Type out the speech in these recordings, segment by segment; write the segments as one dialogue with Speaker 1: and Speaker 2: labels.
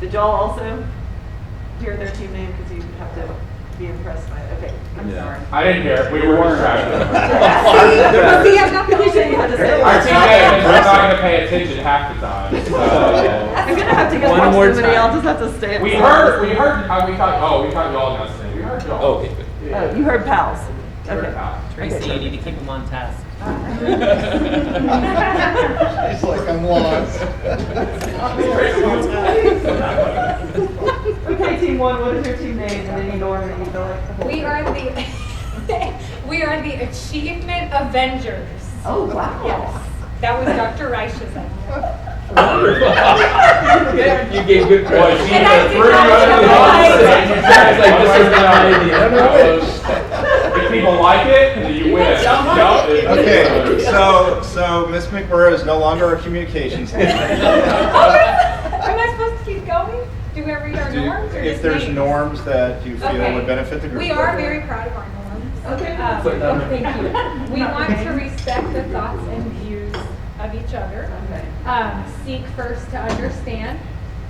Speaker 1: Did y'all also hear their team name? Because you have to be impressed by it. Okay, I'm
Speaker 2: Yeah.
Speaker 1: sorry.
Speaker 3: I didn't hear, we were distracted.
Speaker 1: But see, I'm not the only thing you had to say.
Speaker 3: Our team is not gonna pay attention half the time, so.
Speaker 1: I'm gonna have to go
Speaker 4: One
Speaker 1: watch
Speaker 4: more
Speaker 1: somebody
Speaker 4: time.
Speaker 1: else just have to stay. up
Speaker 3: We
Speaker 1: front.
Speaker 3: heard, we heard, uh, we thought, oh, we thought y'all announced it, we heard y'all.
Speaker 4: Oh, okay,
Speaker 1: Oh, you heard pals.
Speaker 3: We heard
Speaker 1: Okay.
Speaker 3: y'all.
Speaker 5: Tracy, you need to keep them on task.
Speaker 6: It's like I'm lost.
Speaker 1: Okay, team one, what is your team name? And then you go on and you go like the whole.
Speaker 7: We
Speaker 1: thing.
Speaker 7: are the, we are the Achievement Avengers.
Speaker 1: Oh, wow.
Speaker 7: Yes, that was Dr. Reich's idea.
Speaker 4: You gave good
Speaker 3: Well,
Speaker 4: credit.
Speaker 3: she
Speaker 7: And I
Speaker 3: had
Speaker 7: did
Speaker 3: three
Speaker 7: not
Speaker 3: other
Speaker 7: realize-
Speaker 3: ones. Sounds like this is
Speaker 6: No,
Speaker 3: not an idea.
Speaker 6: no, wait.
Speaker 3: If people like it, then you win. No, it-
Speaker 6: Okay, so, so Ms. McMurrow is no longer our communications lead.
Speaker 4: Oh,
Speaker 7: Am I supposed to keep going? Do we read our
Speaker 6: Do-
Speaker 7: norms or
Speaker 6: If
Speaker 7: just
Speaker 6: there's
Speaker 7: names?
Speaker 6: norms that you feel
Speaker 7: Okay.
Speaker 6: would benefit the group.
Speaker 7: We are very proud of our norms.
Speaker 1: Okay.
Speaker 7: Uh,
Speaker 4: Put down.
Speaker 7: Thank you. We want to respect the thoughts and views of each other.
Speaker 1: Okay.
Speaker 7: um, seek first to understand,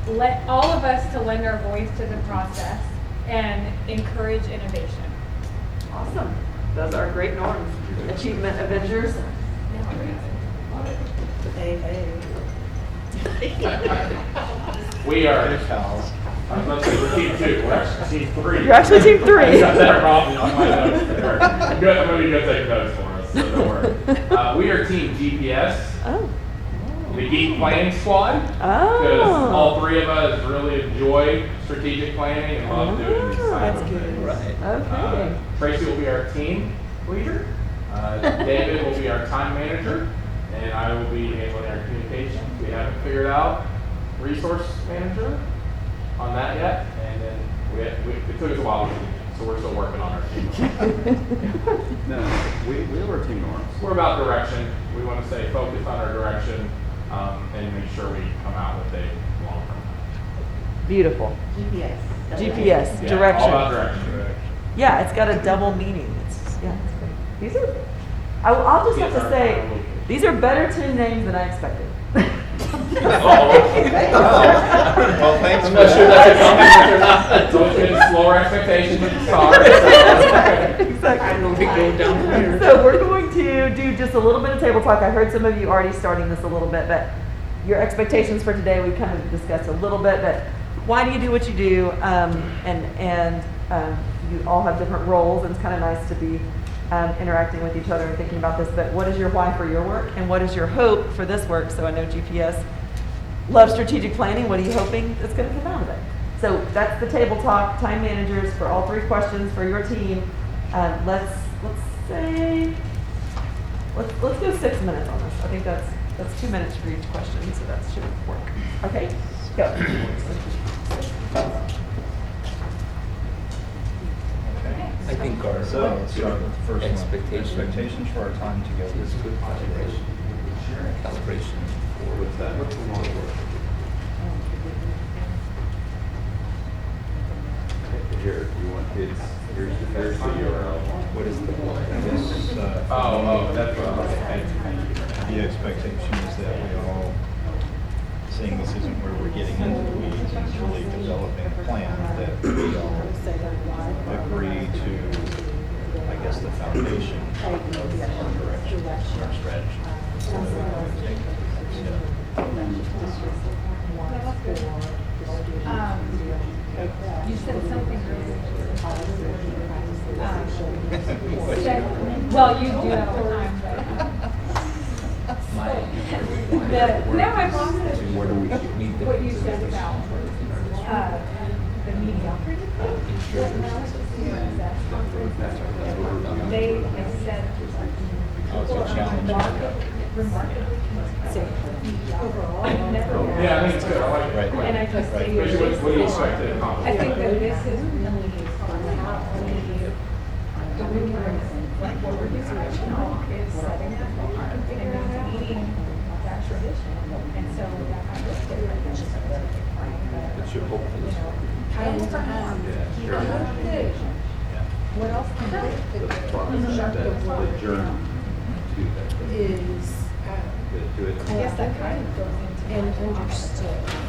Speaker 7: let all of us to lend our voice to the process, and encourage innovation.
Speaker 1: Awesome. Those are great norms. Achievement Avengers. Hey, hey.
Speaker 3: We are,
Speaker 6: Good pals.
Speaker 3: I was about to say, we're team two, we're actually team three.
Speaker 1: You're actually team three.
Speaker 3: I got that problem on my notes there. I'm gonna- I'm gonna go take notes for us, so don't worry. Uh, we are team GPS,
Speaker 1: Oh.
Speaker 3: the Geek Planning Squad. Because
Speaker 1: Oh.
Speaker 3: all three of us really enjoy strategic planning and love doing these
Speaker 1: Oh,
Speaker 3: kinds
Speaker 1: that's
Speaker 3: of
Speaker 1: good.
Speaker 3: things.
Speaker 4: Right.
Speaker 3: Uh,
Speaker 1: Okay.
Speaker 3: Tracy will be our team leader. Uh, David will be our time manager, and I will be handling our communications. We haven't figured out resource manager on that yet, and then we, we, it took us a while, to do that, so we're still working on our team. Uh,
Speaker 2: No, we, we were team norms.
Speaker 3: We're about direction. We want to stay focused on our direction um, and make sure we come out with a long-term.
Speaker 5: Beautiful.
Speaker 1: GPS.
Speaker 5: GPS,
Speaker 3: Yeah, All about
Speaker 5: direction.
Speaker 3: direction.
Speaker 5: Yeah, it's got a double meaning. It's just, yeah. it's great. These are, I, I'll just have to say, these are better team names than I expected. Oh.
Speaker 3: Oh,
Speaker 6: Well, thanks for
Speaker 4: I'm not sure that's
Speaker 6: that.
Speaker 4: a compliment or not.
Speaker 3: So it's been lower expectations at the start.
Speaker 5: Exactly.
Speaker 4: We go down there.
Speaker 5: So we're going to do just a little bit of table talk. I heard some of you already starting this a little bit, but your expectations for today, we kind of discussed a little bit, but why do you do what you do? Um, and, and, um, you all have different roles and it's kind of nice to be, um, interacting with each other and thinking about this, but what is your why for your work and what is your hope for this work? So I know GPS love strategic planning. What are you hoping is going to come out of it? So that's the table talk. Time managers for all three questions for your team. Uh, let's let's say let's let's go six minutes on this. I think that's that's two minutes for each question, so that should work. Okay, go.
Speaker 6: Okay.
Speaker 4: I think our uh,
Speaker 6: So, let's start with the first one.
Speaker 4: Expectations.
Speaker 6: Expectations for our time together.
Speaker 4: is good calibration. Calibration.
Speaker 2: What's that? What's the long word? Here, you want, it's, here's, the- here's the URL.
Speaker 6: What is the This, uh,
Speaker 3: Oh, oh, that's what I was saying.
Speaker 6: The expectation is that we all, seeing this isn't where we're getting into the weeds, it's really developing a plan that we all agree to, I guess, the foundation of our direction, our strategy. So that we can take the next step.
Speaker 7: Um, You said something earlier. Um, said- Well, you do have a time,
Speaker 4: My.
Speaker 7: but the, no, I lost it.
Speaker 4: Where do we meet the?
Speaker 7: What you said about, uh, the mediocrity. They have said.
Speaker 6: Oh, it's a challenge.
Speaker 7: Remarkably consistent overall. I've
Speaker 2: Oh.
Speaker 7: never-
Speaker 3: Yeah, I think it's good. I like it.
Speaker 6: Right.
Speaker 7: And I just
Speaker 6: Right.
Speaker 7: say.
Speaker 3: Especially what, what do you expect to accomplish?
Speaker 7: I think that this is really not only the rigorous, like what we're discussing on is setting the bar and meeting that tradition. And so that I look different than just a
Speaker 4: It should
Speaker 7: you
Speaker 4: hopefully.
Speaker 7: know, I look around,
Speaker 2: Yeah.
Speaker 7: I look good. What else can I do?
Speaker 2: The process, that, the journey to that,
Speaker 8: is, uh,
Speaker 7: um,
Speaker 2: to it.
Speaker 8: I guess that kind of goes into and understood.